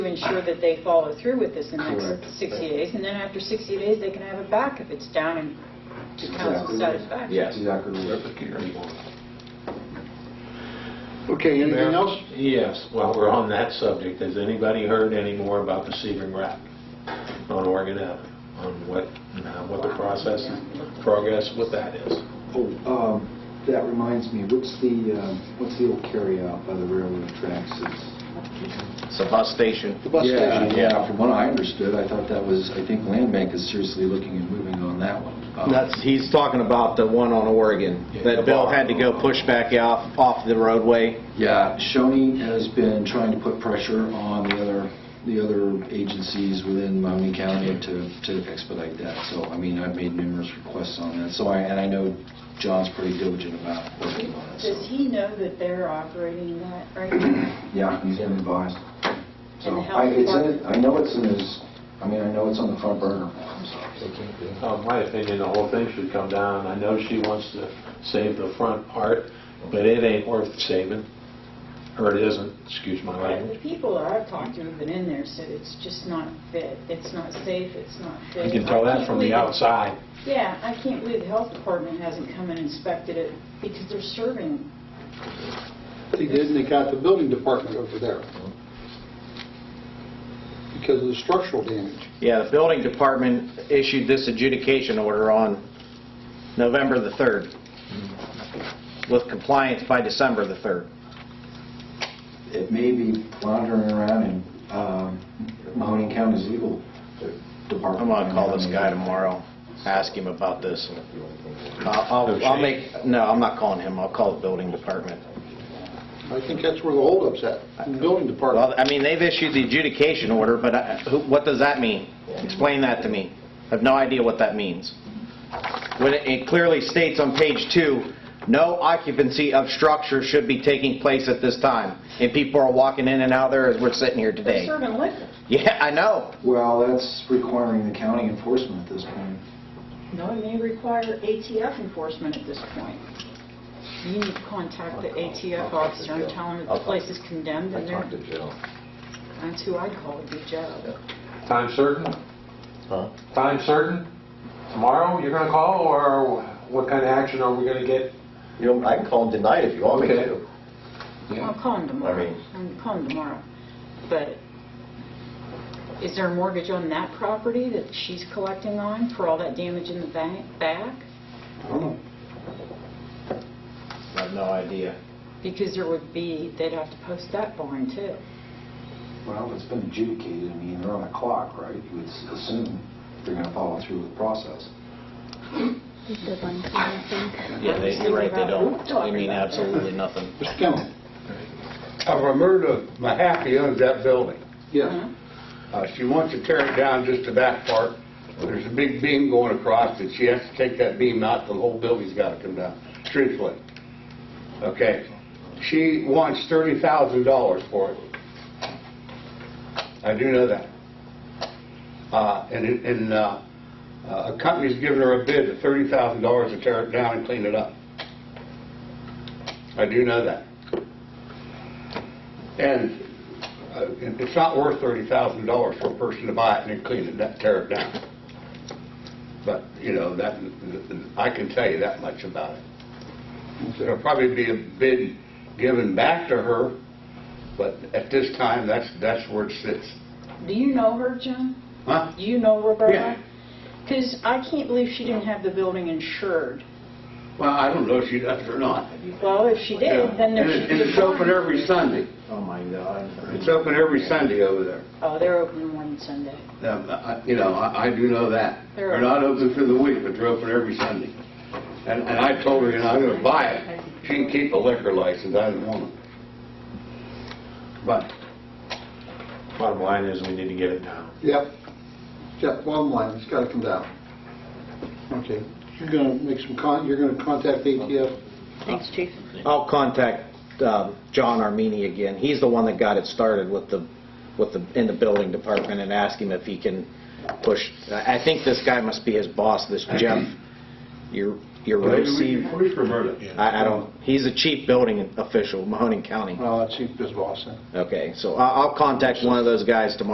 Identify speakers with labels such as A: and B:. A: to ensure that they follow through with this in the
B: Correct.
A: next 60 days, and then after 60 days, they can have it back if it's down in to
B: Exactly.
A: council's satisfaction.
C: Yes.
B: Exactly. right.
D: Okay, anything
E: Mayor?
D: else?
E: Yes, while we're on that subject, has anybody heard any more about the Sebring Wrap on Oregon Avenue? On what, uh, what the process, progress with that is?
B: Oh, um, that reminds me, what's the, um, what's the old carryout by the railroad tracks? It's-
C: It's a bus station.
D: The bus
B: Yeah,
D: station?
B: Yeah, from what I understood, I thought that was, I think Land Bank is seriously looking at moving on that one. Um,
C: That's, he's talking about the one on Oregon,
E: Yeah, the
C: that Bill
E: bar.
C: had to go push back off, off the roadway.
B: Yeah, Shoney has been trying to put pressure on the other, the other agencies within Maumee County to, to expedite that. So, I mean, I've made numerous requests on that, so I, and I know John's pretty diligent about working on it,
A: Does
B: so.
A: he know that they're operating that right now?
B: Yeah, he's been advised.
A: And
B: So,
A: the
B: I,
A: health
B: it's in, it-
A: department?
B: I know it's in his, I mean, I know it's on the front burner.
E: Uh, My opinion, the whole thing should come down. I know she wants to save the front part, but it ain't worth saving, or it isn't, excuse my
A: The
E: language.
A: people that I've talked to have been in there, said it's just not fit, it's not safe, it's not fit.
E: You can tell
A: I
E: that
A: can't
E: from
A: believe
E: the
A: it.
E: outside.
A: Yeah, I can't believe the health department hasn't come and inspected it, because they're serving
D: They did, and they got the building department over there because of the structural damage.
C: Yeah, the building department issued this adjudication order on November the 3rd, with compliance by December the 3rd.
B: It may be wandering around in um, Mahoning County's legal department.
C: I'm gonna call this guy tomorrow, ask him about this. I'll, I'll- I'll make, no, I'm not calling him, I'll call the building department.
D: I think that's where the holdup's at, in the building
C: Well,
D: department.
C: I mean, they've issued the adjudication order, but I- who- what does that mean? Explain that to me. I have no idea what that means. When it- it clearly states on page two, "No occupancy of structure should be taking place at this time," and people are walking in and out there as we're sitting here
A: They're
C: today.
A: serving liquor.
C: Yeah, I know.
B: Well, that's requiring the county enforcement at this point.
A: No, it may require ATF enforcement at this point. You need to contact the ATF officer and tell him that the place is condemned and they're, that's who I call, would be Joe.
E: Time certain? Time certain? Tomorrow you're going to call, or what kind of action are we going to get?
F: You know, I can call him tonight if you want me
E: Okay.
F: to.
A: I'll call him
F: I
A: tomorrow.
F: mean-
A: I'll call him tomorrow. But is there a mortgage on that property that she's collecting on for all that damage in the bank, back?
D: I don't know.
C: I have no idea.
A: Because there would be, they'd have to post that barn too.
B: Well, it's been adjudicated, I mean, they're on a clock, right? You would s- assume they're going to follow through with the process.
G: The one time thing.
C: Yeah, they- you're right, they don't. You mean absolutely nothing.
D: Mr. Kimball?
H: I've removed a Mahaffey owns that building.
D: Yes.
A: Uh-huh.
H: Uh, She wants to tear it down, just the back part. There's a big beam going across it. She has to take that beam out, the whole building's got to come down, truthfully. Okay? She wants $30,000 for it. I do know that. Uh, And it- and uh, uh, a company's given her a bid of $30,000 to tear it down and clean it up. I do know that. And uh, it- it's not worth $30,000 for a person to buy it and then clean it, up, tear it down. But, you know, that, I can tell you that much about it. There'll probably be a bid given back to her, but at this time, that's, that's where it sits.
A: Do you know her, Jim?
H: Huh?
A: Do you know Roberta?
H: Yeah.
A: Because I can't believe she didn't have the building insured.
H: Well, I don't know if she does or not.
A: Well, if she did, then there
H: And
A: should
H: it-
A: be...
H: and it's open every Sunday.
C: Oh, my God.
H: It's open every Sunday over there.
A: Oh, they're open one Sunday.
H: Um, I- You know, I I do know that.
A: They're
H: They're not open for the week, but they're open every Sunday. And and I told her, you know, I'm going to buy it. She can keep the liquor license, I don't want it. But
E: Bottom line is, we need to get it down.
D: Yep. Jeff, bottom line, it's got to come down. Okay. You're going to make some con, you're going to contact ATF?
G: Thanks, Chief.
C: I'll contact um, John Armini again. He's the one that got it started with the, with the, in the building department and ask him if he can push. I I think this guy must be his boss, this Jeff. You're, your road, Steve.
I: Where's Roberta?
C: I, I don't, he's a chief building official, Mahoning County.
D: Oh. Well, that's Chief Biz Boss then.
C: Okay, so I- I'll contact one of those guys tomorrow